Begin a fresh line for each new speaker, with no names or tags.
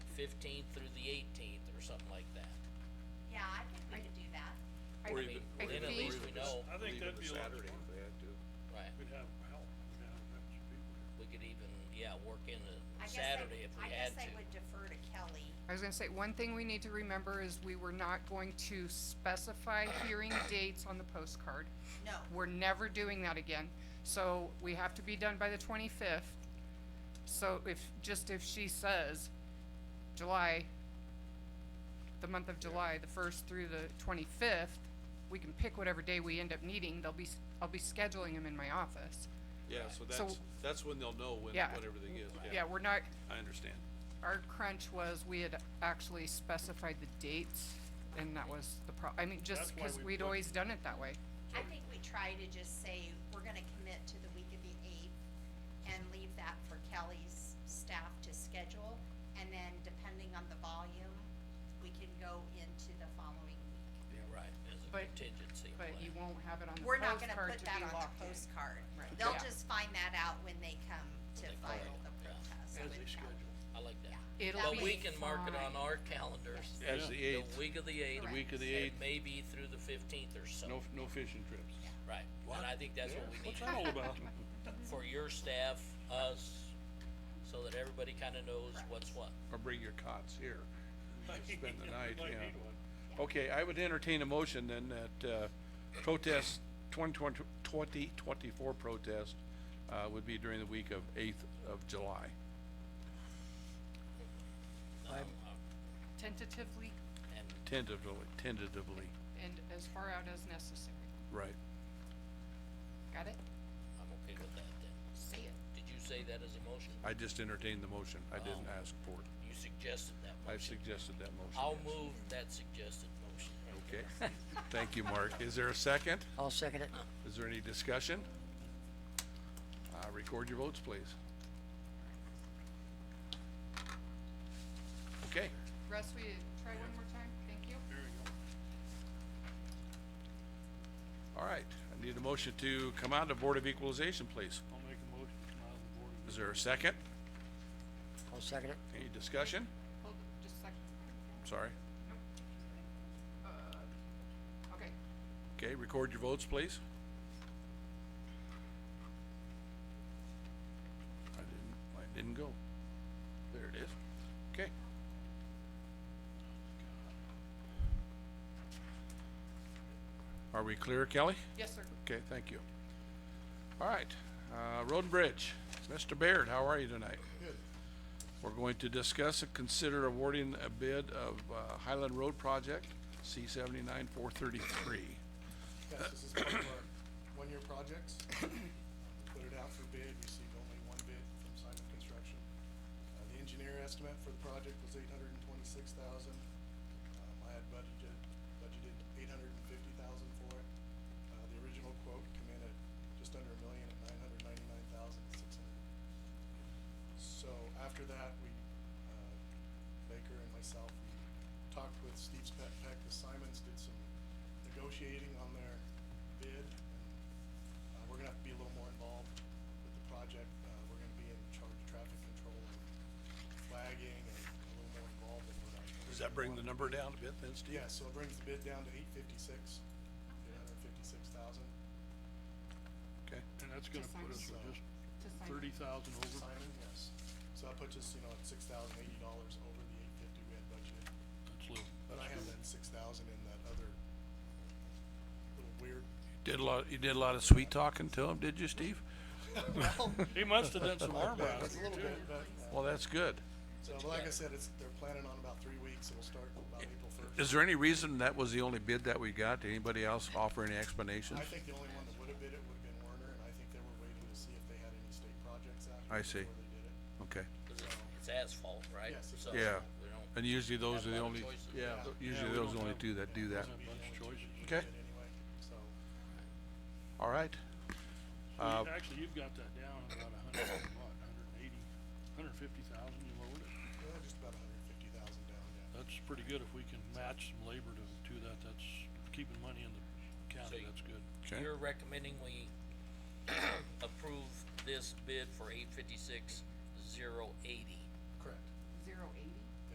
fifteenth through the eighteenth, or something like that.
Yeah, I can agree to do that.
Or
I
even-
mean,
or
Then
even
at least
leave
we
it as-
know,
I think
leave it as
that'd be a lot
Saturday if
smarter.
they had to.
right,
We'd have help, we'd have, have some people here.
we could even, yeah, work in
I
a
guess
Saturday
they,
if
I
we
guess
had
they
to.
would defer to Kelly.
I was gonna say, one thing we need to remember is we were not going to specify hearing dates on the postcard.
No,
We're never doing that again, so we have to be done by the twenty-fifth. So if, just if she says July, the month of July, the first through the twenty-fifth, we can pick whatever day we end up needing, they'll be, s- I'll be scheduling them in my office.
Right.
Yeah, so
So-
that's, that's when they'll know when,
Yeah.
when everything is,
Yeah,
yeah,
we're not,
I understand.
our crunch was, we had actually specified the dates, and that was the pro, I mean, just
That's why
because
we
we'd
put-
always done it that way.
I think we try to just say, we're gonna commit to the week of the eighth and leave that for Kelly's staff to schedule. And then depending on the volume, we can go into the following week.
Right, as a
But-
contingency
But
plan.
you won't have it on the
We're not gonna
postcard
put
to
that
be
on
locked
the
in.
postcard.
Right.
They'll
Yeah.
just find that out when they come to
They call
file
it,
the
yeah.
protest
As
with
they
Kelly.
schedule.
I like that.
It'll
But
be
we can mark it on
fine.
our calendars.
As the eighth,
The week of the eighth.
The week
of the
and
eighth.
Maybe through the fifteenth or so,
no, no fishing trips.
right, and I think that's what we need
What's that all about?
for your staff, us, so that everybody kinda knows
Correct.
what's what.
Or bring your cots here, spend the night,
Might
yeah.
need one.
Okay, I would entertain a motion then that, uh, protest, twenty twenty, twenty twenty-four protest, uh, would be during the week of eighth of July.
Um,
Tentatively
And
Tentatively, tentatively,
and as far out as necessary.
right.
Got it?
I'm okay with that then.
See it.
Did you say that as a motion?
I just entertained the motion. I didn't ask for it.
You suggested that
I
motion.
suggested that motion.
Oh. I'll
yes.
move that suggested motion.
Okay. Thank you, Mark. Is there a second?
I'll second it.
Is there any discussion? Uh, record your votes, please. Okay,
Russ, will you try one more time? Thank you.
There you go.
all right. I need a motion to come out of Board of Equalization, please.
I'll make a motion to come out of the board.
Is there a second?
I'll second it.
Any discussion?
Hold it just a second.
Sorry.
Okay.
Okay, record your votes, please. I didn't, mine didn't go. There it is. Okay. Are we clear, Kelly?
Yes, sir.
Okay, thank you. All right, uh, Road and Bridge, Mr. Baird, how are you tonight? Good. We're going to discuss and consider awarding a bid of uh, Highland Road Project, C seventy-nine four thirty-three.
Yes, this is part of our one-year projects. Put it out for bid, received only one bid from Simon Construction. Uh, the engineer estimate for the project was eight hundred and twenty-six thousand. Um, I had budgeted, budgeted eight hundred and fifty thousand for it. Uh, the original quote came in at just under a million at nine hundred ninety-nine thousand six hundred. So after that, we, uh, Baker and myself, we talked with Steve Peck, Peck, the Simons did some negotiating on their bid. and, Uh, we're gonna have to be a little more involved with the project, uh, we're gonna be in charge of traffic control and flagging and a little more involved in what I.
Does that bring the number down a bit then, Steve?
Yeah, so it brings the bid down to eight fifty-six, eight hundred fifty-six thousand.
Okay,
And that's gonna
Just
put
sign
us
it.
with just
Just sign it.
thirty thousand over.
Simon, yes. So that puts us, you know, at six thousand eighty dollars over the eight fifty we had budgeted.
That's little.
But I have that six thousand in that other little weird.
did a lot, you did a lot of sweet talking to him, did you, Steve?
He must have done some arm
It's
wrestling.
a little bit, but, uh,
Well, that's good.
so, but like I said, it's, they're planning on about three weeks, it'll start about April first.
Is there any reason that was the only bid that we got? Did anybody else offer any explanations?
I think the only one that would have bid it would have been Werner, and I think they were waiting to see if they had any state projects out
I
here
see.
before they did it.
Okay,
'Cause it's- It's asphalt, right?
Yes, it's
So
asphalt.
We don't,
and usually those
Have a
are
lot of
the only,
choices.
yeah,
Yeah.
usually
Yeah, we
those
don't
only
have-
two that do that.
There's a bunch of choices.
Okay.
Bid Anyway, so,
All right. Uh,
You- Actually, you've got that down about a hundred, and what, a hundred and eighty, a hundred and fifty thousand you lowered it.
uh, just about hundred and fifty thousand down, yeah.
That's pretty good if we can match some labor to, to that, that's keeping money in the county,
So-
that's good.
Okay,
you're recommending we approve this bid for eight fifty-six, zero eighty.